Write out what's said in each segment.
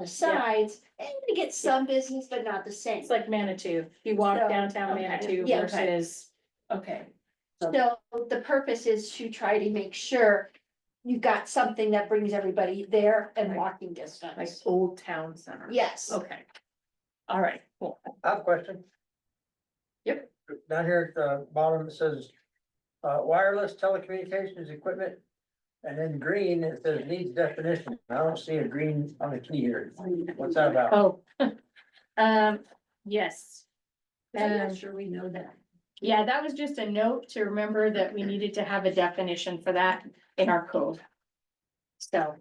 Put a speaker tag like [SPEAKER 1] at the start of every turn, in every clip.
[SPEAKER 1] the sides, and you get some business, but not the same.
[SPEAKER 2] It's like Manitou, you walk
[SPEAKER 1] So,
[SPEAKER 2] downtown
[SPEAKER 3] okay.
[SPEAKER 2] Manitou
[SPEAKER 1] Yeah.
[SPEAKER 2] versus,
[SPEAKER 3] Okay,
[SPEAKER 1] So the purpose is to try to make sure you got something that brings everybody there and
[SPEAKER 2] Right.
[SPEAKER 1] walking
[SPEAKER 2] like,
[SPEAKER 1] distance.
[SPEAKER 2] Old Town Center.
[SPEAKER 1] Yes,
[SPEAKER 2] Okay. All right, cool.
[SPEAKER 4] I have a question.
[SPEAKER 2] Yep.
[SPEAKER 4] Down here at the bottom, it says, uh, wireless telecommunications equipment. And then green, it says needs definition. I don't see a green on the key here. What's that about?
[SPEAKER 2] Oh. Um, yes.
[SPEAKER 1] I'm not
[SPEAKER 2] Um,
[SPEAKER 1] sure we know that.
[SPEAKER 2] Yeah, that was just a note to remember that we needed to have a definition for that in our code. So.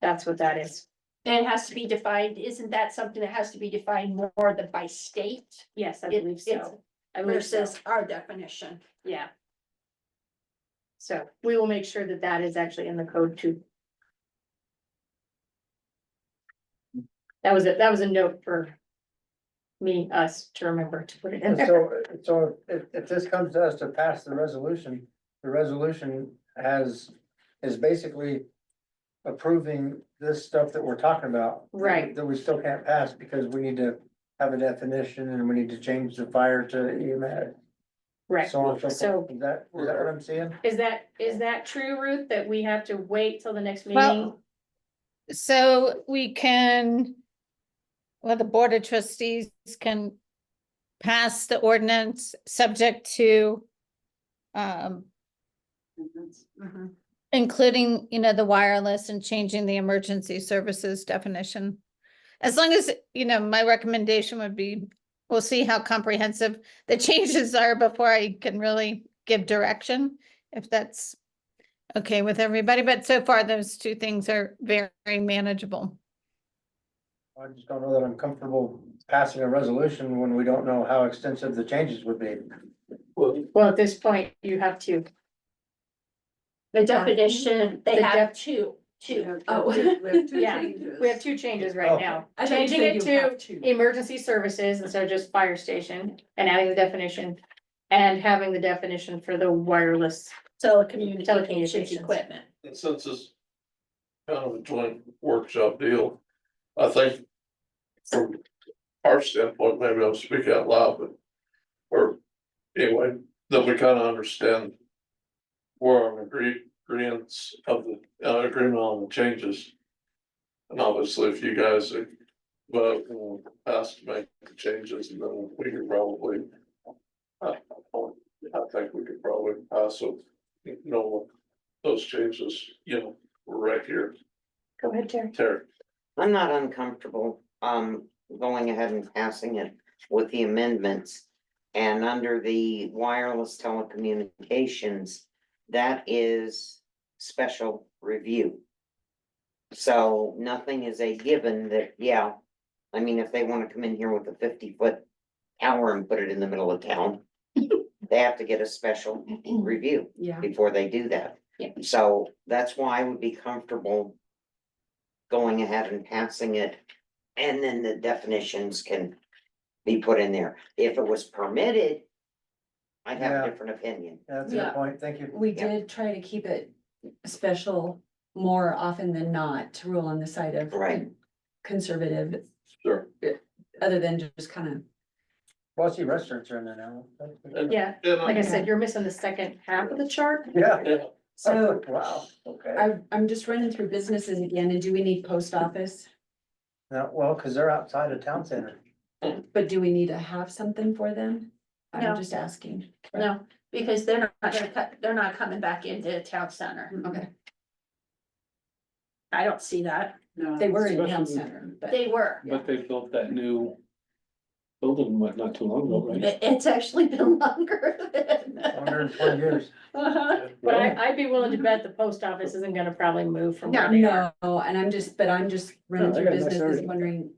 [SPEAKER 2] That's what that is.
[SPEAKER 1] And it has to be defined, isn't that something that has to be defined more than by state?
[SPEAKER 2] Yes, I
[SPEAKER 1] It-
[SPEAKER 2] believe
[SPEAKER 1] it's
[SPEAKER 2] so. I believe so,
[SPEAKER 1] Versus our definition.
[SPEAKER 2] yeah. So we will make sure that that is actually in the code too. That was it, that was a note for me, us to remember to put it in
[SPEAKER 4] And
[SPEAKER 2] there.
[SPEAKER 4] so, so if, if this comes to us to pass the resolution, the resolution has, is basically. Approving this stuff that we're talking about.
[SPEAKER 2] Right.
[SPEAKER 4] That we still can't pass because we need to have a definition and we need to change the fire to E EMS.
[SPEAKER 2] Right,
[SPEAKER 4] So on and so
[SPEAKER 2] So-
[SPEAKER 4] forth. Is that, is that what I'm seeing?
[SPEAKER 2] is that, is that true, Ruth, that we have to wait till the next meeting?
[SPEAKER 5] Well, so we can, well, the Board of Trustees can pass the ordinance subject to um, including, you know, the wireless and changing the emergency services definition. As long as, you know, my recommendation would be, we'll see how comprehensive the changes are before I can really give direction, if that's okay with everybody, but so far those two things are very manageable.
[SPEAKER 4] I just don't know that I'm comfortable passing a resolution when we don't know how extensive the changes would be.
[SPEAKER 6] Well,
[SPEAKER 2] Well, at this point, you have to.
[SPEAKER 1] The definition,
[SPEAKER 2] The
[SPEAKER 1] they have
[SPEAKER 2] def-
[SPEAKER 1] two, two.
[SPEAKER 3] Oh.
[SPEAKER 2] Yeah, We have two changes right now.
[SPEAKER 3] I thought you
[SPEAKER 2] Changing
[SPEAKER 3] said
[SPEAKER 2] it
[SPEAKER 3] you have
[SPEAKER 2] to
[SPEAKER 3] two.
[SPEAKER 2] emergency services instead of just fire station and adding the definition. And having the definition for the wireless.
[SPEAKER 1] Telecommunications
[SPEAKER 2] Telecommunications.
[SPEAKER 1] equipment.
[SPEAKER 6] and since it's kind of a joint workshop deal, I think from our standpoint, maybe I'll speak out loud, but or anyway, that we kind of understand where our agree, agreements of the, uh, agreement on the changes. And obviously, if you guys are, but asked to make the changes, and then we could probably I I think we could probably pass it, you know, those changes, you know, were right here,
[SPEAKER 2] Go ahead, Terry.
[SPEAKER 6] Terry.
[SPEAKER 7] I'm not uncomfortable, um, going ahead and passing it with the amendments. And under the wireless telecommunications, that is special review. So nothing is a given that, yeah, I mean, if they wanna come in here with a fifty foot tower and put it in the middle of town, they have to get a special review
[SPEAKER 3] Yeah.
[SPEAKER 7] before they do that.
[SPEAKER 2] Yeah.
[SPEAKER 7] So that's why I would be comfortable going ahead and passing it, and then the definitions can be put in there. If it was permitted, I'd have
[SPEAKER 4] Yeah.
[SPEAKER 7] a different opinion.
[SPEAKER 4] That's a
[SPEAKER 3] Yeah.
[SPEAKER 4] good point. Thank you.
[SPEAKER 3] We
[SPEAKER 7] Yeah.
[SPEAKER 3] did try to keep it special more often than not to rule on the side of.
[SPEAKER 7] Right.
[SPEAKER 3] Conservative,
[SPEAKER 6] Sure.
[SPEAKER 3] other than just kind of.
[SPEAKER 4] Well, I see restaurants are in there now.
[SPEAKER 2] Yeah,
[SPEAKER 6] And
[SPEAKER 2] like I
[SPEAKER 6] I,
[SPEAKER 2] said, you're missing the second half of the chart.
[SPEAKER 4] Yeah,
[SPEAKER 6] yeah,
[SPEAKER 3] So
[SPEAKER 4] wow, okay.
[SPEAKER 3] I, I'm just running through businesses again, and do we need post office?
[SPEAKER 4] Now, well, because they're outside of town center.
[SPEAKER 3] But do we need to have something for them?
[SPEAKER 1] No.
[SPEAKER 3] I'm just asking.
[SPEAKER 1] No, because they're not gonna cut, they're not coming back into town center.
[SPEAKER 3] Okay,
[SPEAKER 1] I don't see that.
[SPEAKER 3] they were in town
[SPEAKER 8] especially-
[SPEAKER 3] center, but
[SPEAKER 1] They were.
[SPEAKER 8] But they built that new building what, not too long ago, right?
[SPEAKER 1] It- It's actually been longer
[SPEAKER 4] Hundred
[SPEAKER 1] than.
[SPEAKER 4] and twenty years.
[SPEAKER 1] Uh-huh.
[SPEAKER 2] But I, I'd be willing to bet the post office isn't gonna probably move from where they are.
[SPEAKER 3] no, and I'm just, but I'm just running
[SPEAKER 8] No, I
[SPEAKER 3] through
[SPEAKER 8] got a nice
[SPEAKER 3] businesses
[SPEAKER 8] area.
[SPEAKER 3] wondering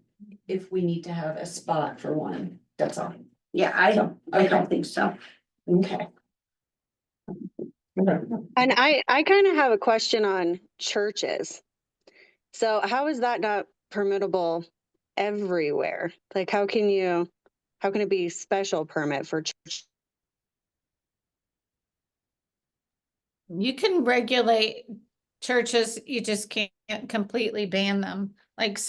[SPEAKER 3] if we need to have a spot for one, that's all.
[SPEAKER 1] Yeah, I don't, I don't think so.
[SPEAKER 3] Okay.
[SPEAKER 9] And I, I kind of have a question on churches. So how is that not permittable everywhere? Like, how can you, how can it be special permit for church?
[SPEAKER 5] You can regulate churches, you just can't completely ban them. Like